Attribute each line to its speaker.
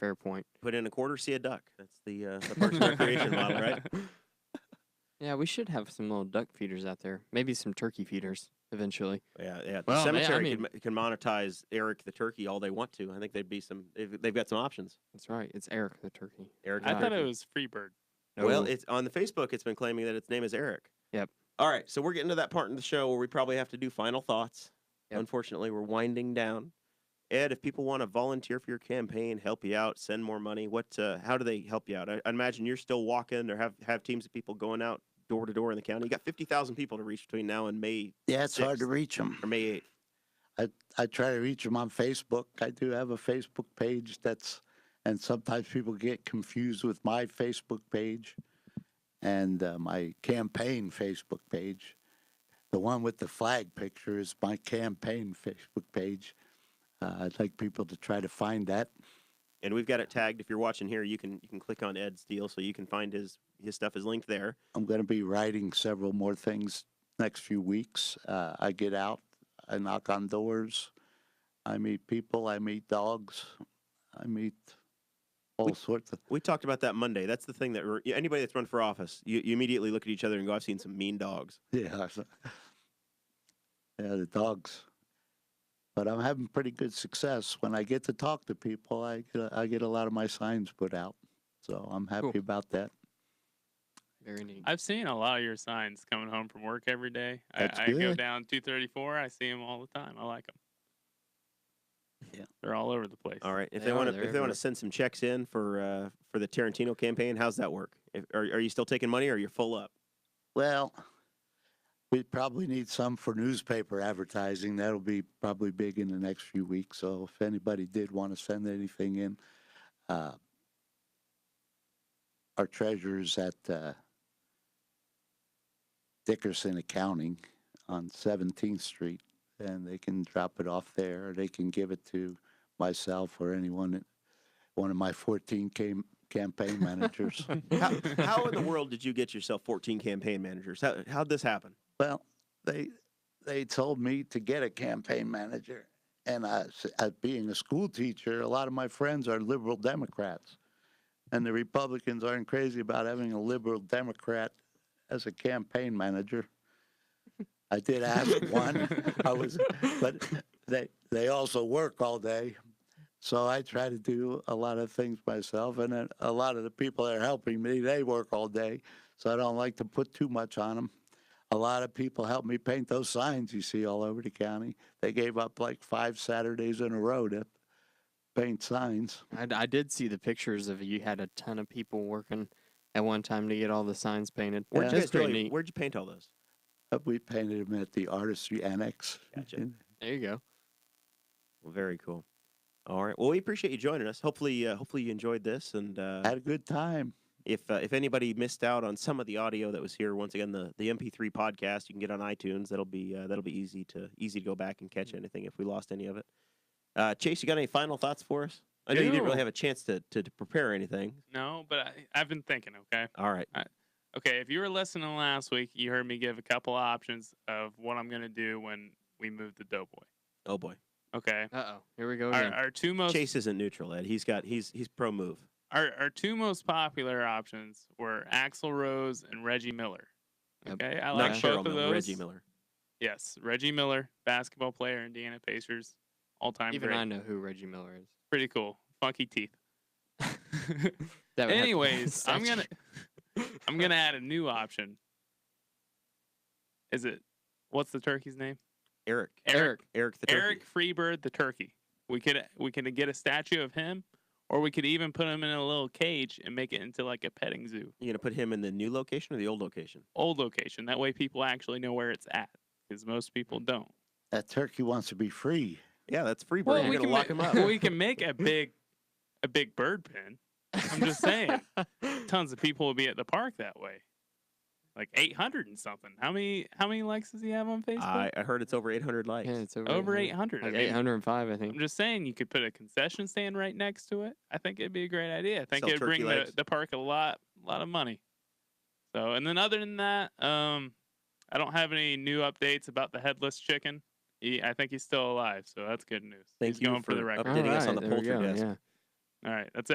Speaker 1: Fair point.
Speaker 2: Put in a quarter, see a duck. That's the, uh, the Parks and Recreation model, right?
Speaker 1: Yeah, we should have some little duck feeders out there. Maybe some turkey feeders eventually.
Speaker 2: Yeah, yeah. The
Speaker 1: Well, yeah, I
Speaker 2: cemetery
Speaker 1: mean-
Speaker 2: can, can monetize Eric the turkey all they want to. I think they'd be some. They've, they've got some options.
Speaker 1: That's right. It's Eric the turkey.
Speaker 2: Eric.
Speaker 3: I
Speaker 2: the
Speaker 3: thought
Speaker 2: turkey.
Speaker 3: it was Freebird.
Speaker 2: Well,
Speaker 1: No.
Speaker 2: it's on the Facebook. It's been claiming that its name is Eric.
Speaker 1: Yep.
Speaker 2: All right, so we're getting to that part in the show where we probably have to do final thoughts.
Speaker 1: Yep.
Speaker 2: Unfortunately, we're winding down. Ed, if people want to volunteer for your campaign, help you out, send more money, what? Uh, how do they help you out? I, I imagine you're still walking or have have teams of people going out door to door in the county. You got fifty thousand people to reach between now and May
Speaker 4: Yeah, it's hard to
Speaker 2: Sixth.
Speaker 4: reach them.
Speaker 2: or May eighth.
Speaker 4: I try to reach them on Facebook. I do have a Facebook page that's, and sometimes people get confused with my Facebook page and uh, my campaign Facebook page. The one with the flag picture is my campaign Facebook page. Uh, I'd like people to try to find that.
Speaker 2: And we've got it tagged. If you're watching here, you can you can click on Ed's deal so you can find his his stuff is linked there.
Speaker 4: I'm going to be writing several more things next few weeks. Uh, I get out, I knock on doors, I meet people, I meet dogs, I meet all sorts of.
Speaker 2: We talked about that Monday. That's the thing that re- anybody that's run for office, you, you immediately look at each other and go, "I've seen some mean dogs."
Speaker 4: Yeah. so- Yeah, the dogs. But I'm having pretty good success. When I get to talk to people, I get a, I get a lot of my signs put out. So I'm happy
Speaker 1: Cool.
Speaker 4: about that.
Speaker 1: Very neat.
Speaker 3: I've seen a lot of your signs coming home from work every day.
Speaker 4: That's
Speaker 3: I, I go
Speaker 4: good.
Speaker 3: down 234. I see them all the time. I like them.
Speaker 4: Yeah.
Speaker 3: They're all over the place.
Speaker 2: All right. If
Speaker 1: They
Speaker 2: they,
Speaker 1: are,
Speaker 2: want
Speaker 1: they're
Speaker 2: to, if they want
Speaker 1: everywhere.
Speaker 2: to send some checks in for uh, for the Tarantino campaign, how's that work? If, are are you still taking money, or you're full up?
Speaker 4: Well, we probably need some for newspaper advertising. That'll be probably big in the next few weeks. So if anybody did want to send anything in, uh, our treasurer's at uh, Dickerson Accounting on 17th Street, and they can drop it off there. Or they can give it to myself or anyone, that- one of my 14 cam- campaign managers.
Speaker 2: How, how in the world did you get yourself 14 campaign managers? How how'd this happen?
Speaker 4: Well, they they told me to get a campaign manager, and I, s- uh, being a school teacher, a lot of my friends are liberal Democrats, and the Republicans aren't crazy about having a liberal Democrat as a campaign manager. I did ask one. I was, but they they also work all day. So I try to do a lot of things myself, and then a lot of the people that are helping me, they work all day, so I don't like to put too much on them a lot of people helped me paint those signs you see all over the county. They gave up like five Saturdays in a row to paint signs.
Speaker 1: I, d- I did see the pictures of you had a ton of people working at one time to get all the signs painted.
Speaker 2: Where'd
Speaker 4: Yeah.
Speaker 2: you
Speaker 1: That's
Speaker 2: guys
Speaker 1: pretty
Speaker 2: really-
Speaker 1: neat.
Speaker 2: Where'd you paint all those?
Speaker 4: But Uh, we painted them at the Artistry Annex.
Speaker 2: Gotcha.
Speaker 1: There you go.
Speaker 2: Well, very cool. All right. Well, we appreciate you joining us. Hopefully, uh, hopefully you enjoyed this. And uh,
Speaker 4: Had a good time.
Speaker 2: if uh, if anybody missed out on some of the audio that was here, once again the, the MP3 podcast you can get on iTunes. That'll be uh, that'll be easy to easy to go back and catch anything if we lost any of it. Uh, Chase, you got any final thoughts for us? I know you didn't really
Speaker 3: No.
Speaker 2: have a chance to, to, to prepare anything.
Speaker 3: No, but I, I've been thinking, okay?
Speaker 2: All right.
Speaker 3: Okay, if you were listening last week, you heard me give a couple of options of what I'm going to do when we move to Doughboy.
Speaker 2: Oh boy.
Speaker 3: Okay.
Speaker 1: Uh oh. Here we go
Speaker 3: Our,
Speaker 1: again.
Speaker 3: our two most
Speaker 2: Chase isn't neutral, Ed. He's got he's he's pro move.
Speaker 3: our, our two most popular options were Axl Rose and Reggie Miller.
Speaker 1: Yep.
Speaker 3: Okay, I
Speaker 2: Not
Speaker 3: like both
Speaker 2: Cheryl
Speaker 3: of
Speaker 2: Miller,
Speaker 3: those.
Speaker 2: Reggie Miller.
Speaker 3: Yes, Reggie Miller, basketball player, Indiana Pacers, all time
Speaker 1: Even
Speaker 3: great.
Speaker 1: I know who Reggie Miller is.
Speaker 3: Pretty cool. Funky teeth.
Speaker 1: That would have to be
Speaker 3: Anyways, I'm
Speaker 1: statue.
Speaker 3: gonna I'm gonna add a new option. Is it what's the turkey's name?
Speaker 2: Eric.
Speaker 1: Eric.
Speaker 2: Eric the turkey.
Speaker 3: Eric Freebird the turkey. We could we could get a statue of him, or we could even put him in a little cage and make it into like a petting zoo.
Speaker 2: You gonna put him in the new location or the old location?
Speaker 3: Old location. That way people actually know where it's at, because most people don't.
Speaker 4: That turkey wants to be free.
Speaker 2: Yeah, that's free. Bird.
Speaker 1: Well,
Speaker 2: You're
Speaker 1: we
Speaker 2: gonna
Speaker 1: can
Speaker 2: lock
Speaker 1: ma-
Speaker 2: him up.
Speaker 1: well,
Speaker 3: we can make a big a big bird pen. I'm just saying. Tons of people will be at the park that way. Like 800 and something. How many how many likes does he have on Facebook?
Speaker 2: I, mm-hmm. I heard it's over 800 likes.
Speaker 1: Yeah, it's over,
Speaker 3: Over
Speaker 1: 800.
Speaker 3: 800.
Speaker 1: Like
Speaker 3: I mean,
Speaker 1: 805, I
Speaker 3: I'm
Speaker 1: think.
Speaker 3: just saying you could put a concession stand right next to it. I think it'd be a great idea. I think
Speaker 2: Sell
Speaker 3: it'd
Speaker 2: turkey
Speaker 3: bring the,
Speaker 2: legs.
Speaker 3: the park a lot lot of money. So and then other than that, um I don't have any new updates about the headless chicken. He, I think he's still alive, so that's good news.
Speaker 2: Thank
Speaker 3: he's
Speaker 2: you
Speaker 3: going for, the
Speaker 2: for
Speaker 3: record.
Speaker 2: updating us on
Speaker 1: Alright,
Speaker 2: the
Speaker 1: there we
Speaker 2: poultry
Speaker 1: go,
Speaker 2: desk.
Speaker 1: Yeah.
Speaker 3: All right, that's